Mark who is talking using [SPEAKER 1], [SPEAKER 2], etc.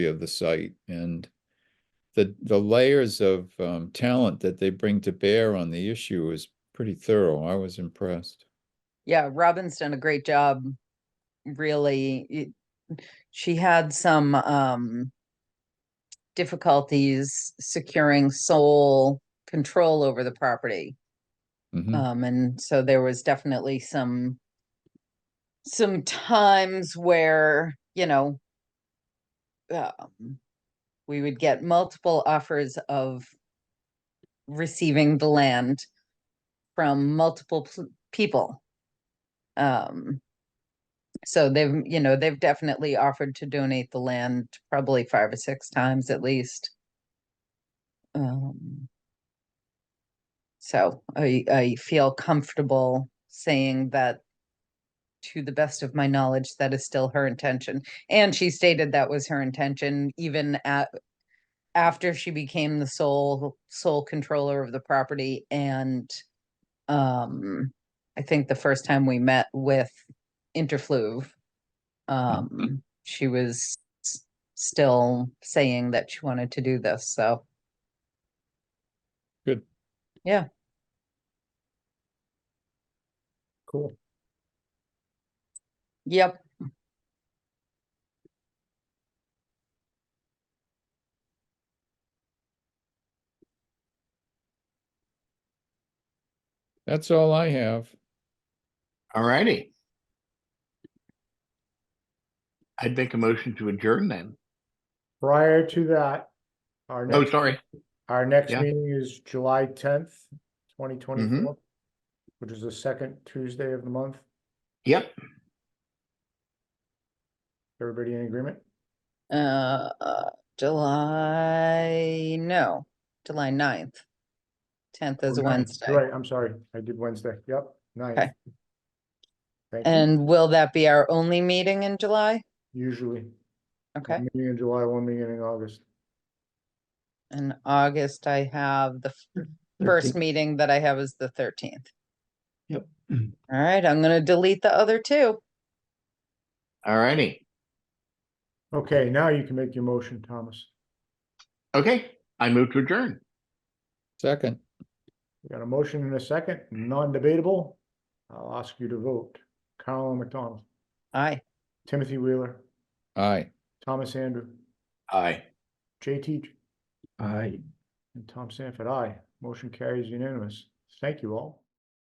[SPEAKER 1] of the site and the, the layers of, um, talent that they bring to bear on the issue is pretty thorough. I was impressed.
[SPEAKER 2] Yeah, Robin's done a great job. Really, it- she had some um difficulties securing sole control over the property.
[SPEAKER 1] Mhm.
[SPEAKER 2] Um, and so there was definitely some some times where, you know, um, we would get multiple offers of receiving the land from multiple pl- people. Um, so they've, you know, they've definitely offered to donate the land probably five or six times at least. Um, so I, I feel comfortable saying that to the best of my knowledge, that is still her intention. And she stated that was her intention even at after she became the sole sole controller of the property and um I think the first time we met with Interfluve, um she was s- still saying that she wanted to do this, so
[SPEAKER 1] Cool.
[SPEAKER 2] yep.
[SPEAKER 1] That's all I have.
[SPEAKER 3] Alrighty. I'd make a motion to adjourn then.
[SPEAKER 4] Prior to that, our
[SPEAKER 3] Oh,
[SPEAKER 4] next,
[SPEAKER 3] sorry.
[SPEAKER 4] our next
[SPEAKER 3] yeah. Mm-hmm.
[SPEAKER 4] meeting is July tenth, twenty twenty-four, which is the second Tuesday of the month.
[SPEAKER 3] Yep,
[SPEAKER 4] Everybody in agreement?
[SPEAKER 2] Uh, uh, July, no, July ninth. Tenth is
[SPEAKER 4] Oh,
[SPEAKER 2] a
[SPEAKER 4] ninth.
[SPEAKER 2] Wednesday.
[SPEAKER 4] Right, I'm sorry. I did Wednesday. Yep, ninth.
[SPEAKER 2] Okay.
[SPEAKER 4] Thank you.
[SPEAKER 2] And will that be our only meeting in July?
[SPEAKER 4] Usually,
[SPEAKER 2] Okay,
[SPEAKER 4] one meeting in July, one meeting in August. Mm-hmm.
[SPEAKER 2] in August I have the f- first meeting that I have is the thirteenth.
[SPEAKER 3] Yep.
[SPEAKER 2] All right, I'm gonna delete the other two.
[SPEAKER 3] alrighty.
[SPEAKER 4] Okay, now you can make your motion, Thomas.
[SPEAKER 3] Okay, I move to adjourn.
[SPEAKER 1] Second,
[SPEAKER 4] We got a motion and a second, non-debatable. I'll ask you to vote. Carolyn McDonald,
[SPEAKER 2] Aye,
[SPEAKER 4] Timothy Wheeler,
[SPEAKER 1] aye.
[SPEAKER 4] Thomas Andrew,
[SPEAKER 3] Aye.
[SPEAKER 4] Jay Teach,
[SPEAKER 3] Aye.
[SPEAKER 4] And Tom Sanford, aye. Motion carries unanimous. Thank you all.